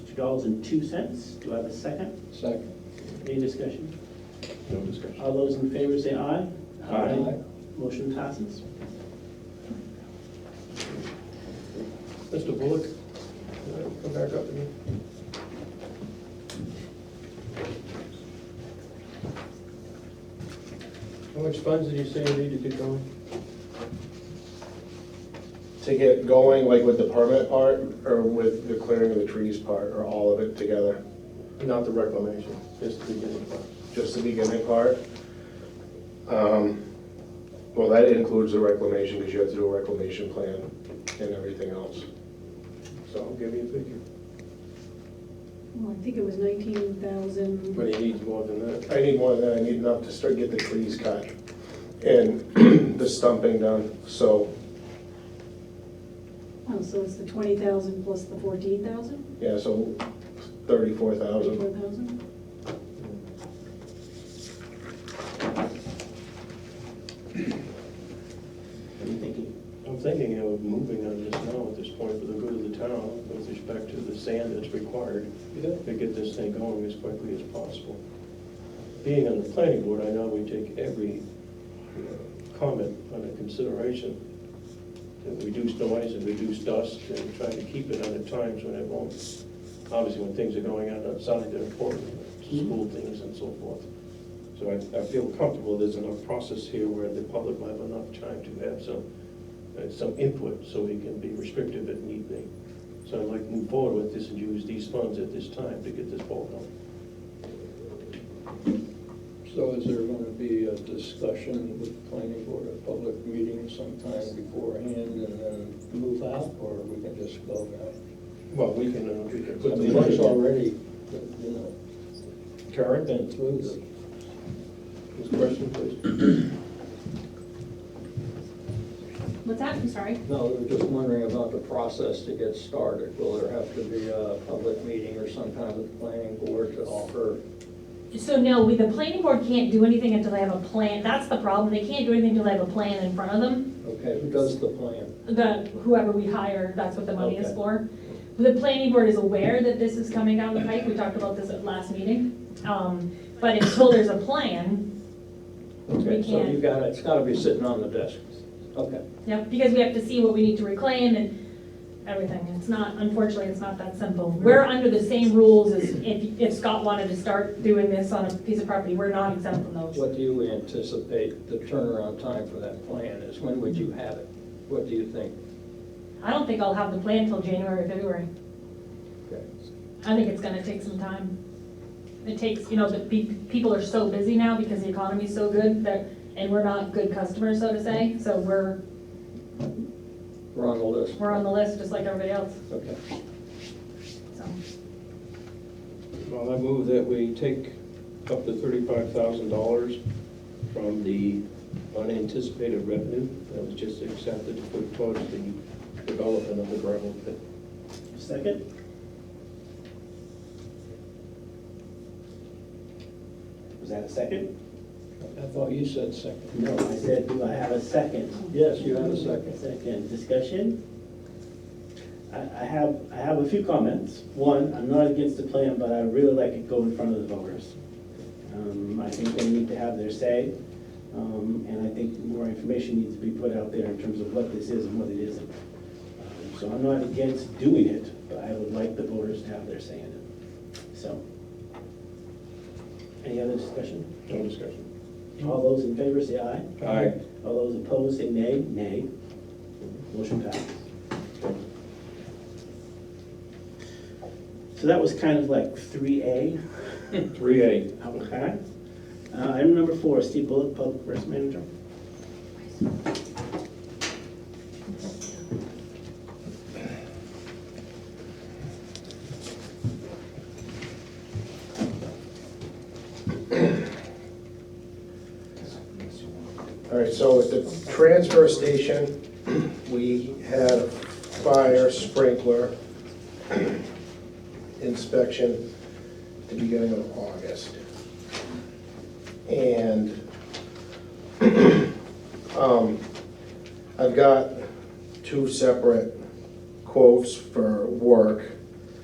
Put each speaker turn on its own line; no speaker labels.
Two dollars and two cents. Do I have a second?
Second.
Any discussion?
No discussion.
All those in favor say aye.
Aye.
Motion passes.
Mr. Bullock, uh, come back up again. How much funds did you say you needed to get going?
to get going, like with the permit part, or with the clearing of the trees part, or all of it together?
Not the reclamation, just the beginning part.
Just the beginning part? Um, Well, that includes the reclamation, because you have to do a reclamation plan and everything else.
So I'll give you a figure.
Well, I think it was nineteen thousand,
But he needs more than that.
I need more than, I need enough to start, get the trees cut and the stumping done, so,
oh, so it's the twenty thousand plus the fourteen thousand,
yeah, so thirty-four
thirty-four
thousand.
thousand?
What are you thinking?
I'm thinking of moving on this now at this point for the good of the town with respect to the sand that's required to get this thing going as quickly as possible. Being on the planning board, I know we take every uh, comment under consideration. And reduce noise and reduce dust and try to keep it under times when it won't. Obviously, when things are going on outside, they're important, school things and so forth. So I, I feel comfortable there's enough process here where the public will have enough time to have some, uh, some input, so we can be restrictive if need be. So I'd like to move forward with this and use these funds at this time to get this ball going.
So is there going to be a discussion with the planning board, a public meeting sometime beforehand and then move out, or we can just go now?
Well, we can, uh, we can
I
put the
mean, it's
money
already, you know,
current
been
and.
through the
This question, please.
What's that? I'm sorry.
No, we were just wondering about the process to get started. Will there have to be a public meeting or some kind of planning board to offer?
So no, we, the planning board can't do anything until they have a plan. That's the problem. They can't do anything until they have a plan in front of them.
Okay, who does the plan?
The, whoever we hire, that's what the money is
Okay.
for. The planning board is aware that this is coming down the pike. We talked about this at last meeting. Um, but until there's a plan,
Okay, so
can't.
you got, it's got to be sitting on the desk. Okay.
yeah, because we have to see what we need to reclaim and everything. It's not, unfortunately, it's not that simple. We're under the same rules as if, if Scott wanted to start doing this on a piece of property, we're not exempt from those.
What do you anticipate the turnaround time for that plan is? When would you have it? What do you think?
I don't think I'll have the plan till January, February. I think it's gonna take some time. It takes, you know, the, pe- people are so busy now because the economy's so good that, and we're not good customers, so to say, so we're,
We're on the list.
we're on the list just like everybody else,
Okay.
so.
Well, I move that we take up to thirty-five thousand dollars from the unanticipated revenue that was just accepted to put towards the development of the gravel pit.
Second? Was that a second?
I thought you said second.
No, I said, do I have a second?
Yes, you have a second.
Second, discussion? I, I have, I have a few comments. One, I'm not against the plan, but I really like it go in front of the voters. Um, I think they need to have their say, um, and I think more information needs to be put out there in terms of what this is and what it isn't. Um, So I'm not against doing it, but I would like the voters to have their say in it, so. Any other discussion?
No discussion.
All those in favor say aye.
Aye.
All those opposed say nay. Nay. Motion passes. So that was kind of like three A,
Three A.
okay? Uh, Item number four, Steve Bullock, Public Works Manager.
All right, so at the transfer station, we had a fire sprinkler inspection at the beginning of August. And um, I've got two separate quotes for work